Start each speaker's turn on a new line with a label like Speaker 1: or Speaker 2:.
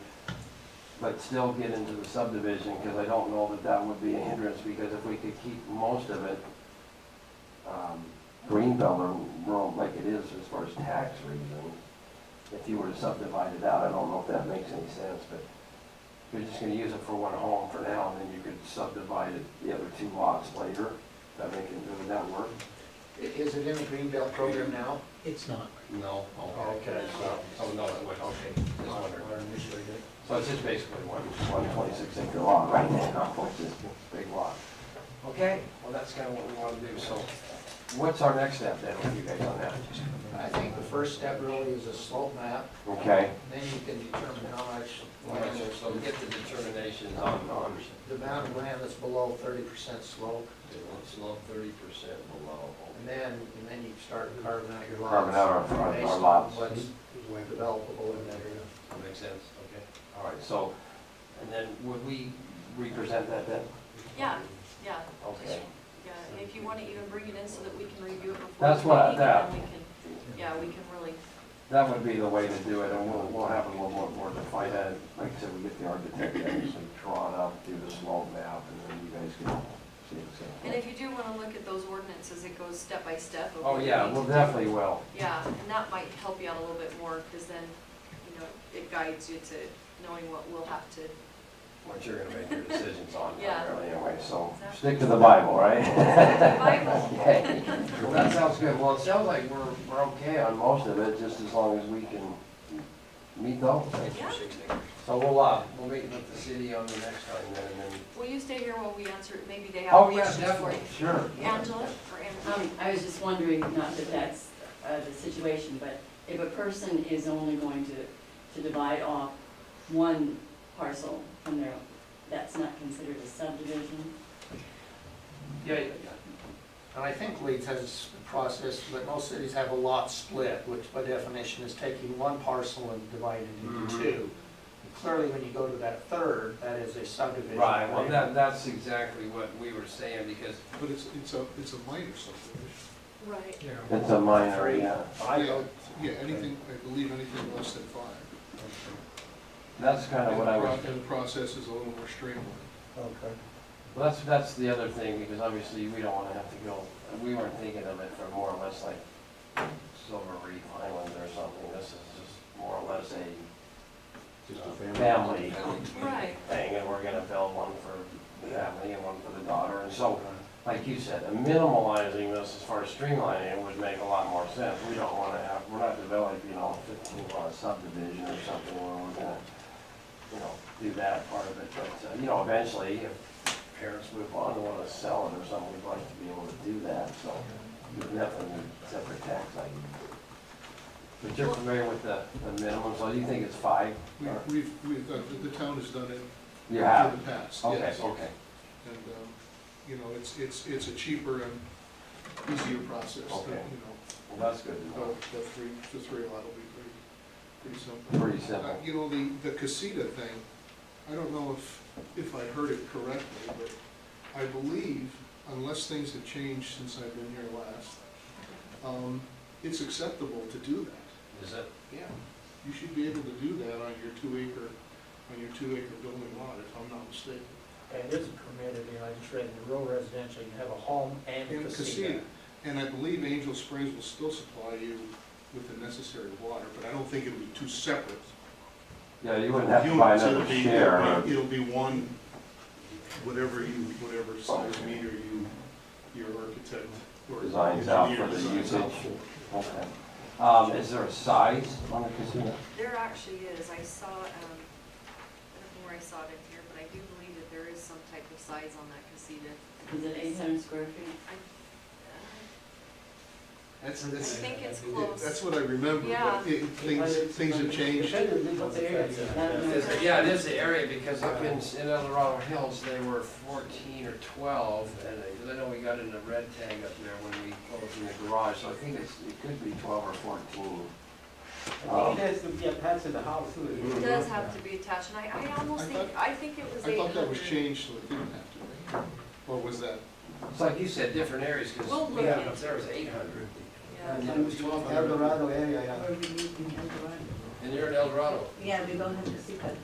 Speaker 1: but still get into the subdivision, because I don't know that that would be a hindrance, because if we could keep most of it, um, Greenbelt or rural like it is as far as tax reasons, if you were to subdivide it out, I don't know if that makes any sense, but you're just gonna use it for one home for now, and then you could subdivide it, the other two lots later, that make it, would that work?
Speaker 2: I- Is it in the Green Belt program now?
Speaker 3: It's not.
Speaker 1: No.
Speaker 2: Okay,
Speaker 1: so, oh, no, it would, okay, just wondering. So it's just basically one, one twenty-six acre lot right now, which is a big lot. Okay, well, that's kind of what we want to do, so what's our next step then, with you guys on that?
Speaker 2: I think the first step really is a slope map,
Speaker 1: Okay.
Speaker 2: then you can determine how much land is,
Speaker 1: So get the determinations on, on
Speaker 2: the amount of land that's below thirty percent slope,
Speaker 1: slope thirty percent below.
Speaker 2: and then, and then you start carving out your lots.
Speaker 1: Carving out our- our- our
Speaker 2: based on
Speaker 1: lots.
Speaker 2: What's developable in that area.
Speaker 1: That Makes sense, okay. All right, so, and then would we represent that then?
Speaker 4: Yeah, yeah.
Speaker 1: Okay.
Speaker 4: Yeah, if you want to even bring it in so that we can review it before.
Speaker 1: That's
Speaker 4: the
Speaker 1: what I-
Speaker 4: meeting, and
Speaker 1: that-
Speaker 4: then we can- Yeah, we can really,
Speaker 1: That would be the way to do it, and we'll, we'll have a little more, more defined, uh, like I said, we get the architect to actually draw it up, do the slope map, and then you guys can see
Speaker 4: and
Speaker 1: it's.
Speaker 4: if you do want to look at those ordinances, it goes step by step. of
Speaker 1: Oh,
Speaker 4: what you
Speaker 1: yeah,
Speaker 4: need
Speaker 1: well,
Speaker 4: to do.
Speaker 1: definitely will.
Speaker 4: Yeah, and that might help you out a little bit more because then, you know, it guides you to knowing what we'll have to,
Speaker 1: What you're gonna make your decisions on
Speaker 4: Yeah.
Speaker 1: primarily anyway, so
Speaker 4: Exactly.
Speaker 1: stick to the Bible, right?
Speaker 4: Bible.
Speaker 1: Okay. Well, that sounds good. Well, it sounds like we're, we're okay on most of it, just as long as we can meet those.
Speaker 4: Yeah.
Speaker 1: So we'll, uh, we'll meet with the city on the next time then, and then.
Speaker 4: will you stay here while we answer, it? maybe they have
Speaker 1: Oh, yeah,
Speaker 4: questions for
Speaker 1: definitely,
Speaker 4: you?
Speaker 1: sure.
Speaker 4: Angela or Angela?
Speaker 5: Um, I was just wondering, not that that's, uh, the situation, but if a person is only going to, to divide off one parcel from their, that's not considered a subdivision?
Speaker 1: Yeah, yeah, yeah.
Speaker 2: And I think Leeds has a process, but most cities have a lot split, which by definition is taking one parcel and dividing it
Speaker 1: Mhm.
Speaker 2: into two. Clearly, when you go to that third, that is a subdivision.
Speaker 1: Right, well, that, that's exactly what we were saying, because.
Speaker 6: But it's, it's a, it's a minor subdivision.
Speaker 4: Right.
Speaker 6: Yeah.
Speaker 1: It's a minor, yeah.
Speaker 6: Yeah, yeah, anything, I believe anything less than five.
Speaker 1: That's kind of what I was,
Speaker 6: And the pro- and the process is a little more streamlined.
Speaker 2: Okay.
Speaker 1: well, that's, that's the other thing, because obviously we don't want to have to go, we weren't thinking of it for more or less like Silver Reef Island or something. This is just more or less a uh, family
Speaker 4: Right,
Speaker 1: thing, and we're gonna build one for the family and one for the daughter. And so, like you said, minimalizing this as far as streamlining it would make a lot more sense. We don't wanna have, we're not developing, you know, fifteen lot subdivision or something where we're gonna, you know, do that part of it. But, uh, you know, eventually, if parents move on and wanna sell it or something, we'd like to be able to do that, so there's nothing except for tax item. But you're familiar with the, the minimum, so you think it's five?
Speaker 6: We-
Speaker 1: or-
Speaker 6: We've, we've, done- the- the town has done it in
Speaker 1: You
Speaker 6: the
Speaker 1: have?
Speaker 6: past,
Speaker 1: Okay,
Speaker 6: yes.
Speaker 1: okay.
Speaker 6: And, um, you know, it's, it's, it's a cheaper and easier process, than,
Speaker 1: Okay.
Speaker 6: you
Speaker 1: Well, that's good to
Speaker 6: know,
Speaker 1: know.
Speaker 6: the, the three, the three lot will be pretty, pretty simple.
Speaker 1: Pretty
Speaker 6: Uh,
Speaker 1: simple.
Speaker 6: You know, the, the casita thing, I don't know if, if I heard it correctly, but I believe, unless things have changed since I've been here last, um, it's acceptable to do that.
Speaker 1: Is it?
Speaker 6: Yeah. You should be able to do that on your two acre, on your two acre building lot, if I'm not mistaken.
Speaker 7: And it's permitted, you know, I just read in rural residential, you can have a home and a
Speaker 6: And
Speaker 7: casino.
Speaker 6: casita, and I believe Angel Springs will still supply you with the necessary water, but I don't think it'll be two separate.
Speaker 1: Yeah, you wouldn't have to buy
Speaker 6: units.
Speaker 1: another
Speaker 6: It'll be-
Speaker 1: share.
Speaker 6: it'll be- It'll be one, whatever you, whatever size meter you, your architect or.
Speaker 1: Designs out for
Speaker 6: engineer
Speaker 1: the
Speaker 6: designs out
Speaker 1: usage.
Speaker 6: for.
Speaker 1: Okay. Um, is there a size on the casino?
Speaker 4: there actually is, I saw, um, I don't know where I saw it in here, but I do believe that there is some type of size on that casita.
Speaker 5: Is it eight hundred square feet?
Speaker 6: That's,
Speaker 4: I
Speaker 6: that's,
Speaker 4: think it's
Speaker 6: it-
Speaker 4: close.
Speaker 6: that's what I remember,
Speaker 4: Yeah.
Speaker 6: but it, things, things have changed.
Speaker 7: Depending on what the area is.
Speaker 1: Yeah, it is the area, because up in, in Eldorado Hills, they were fourteen or twelve, and I- 'cause I know we got in the red tag up there when we closed in the garage, so I think it's, it could be twelve or fourteen.
Speaker 7: I think it has to be attached to the house too.
Speaker 4: It does have to be attached, and I, I almost
Speaker 6: I
Speaker 4: think, I think it was
Speaker 6: I
Speaker 4: eight
Speaker 6: thought that was
Speaker 4: hundred.
Speaker 6: changed, so it didn't have to be. Or was that?
Speaker 1: It's like you said, different areas, because
Speaker 4: We'll
Speaker 1: we
Speaker 4: look
Speaker 1: had
Speaker 4: at
Speaker 1: up
Speaker 4: it.
Speaker 1: there was eight hundred.
Speaker 4: Yeah,
Speaker 1: then it was 1200.
Speaker 7: Eldorado area, yeah.
Speaker 1: And you're in Eldorado.
Speaker 8: Yeah, we don't have to see that.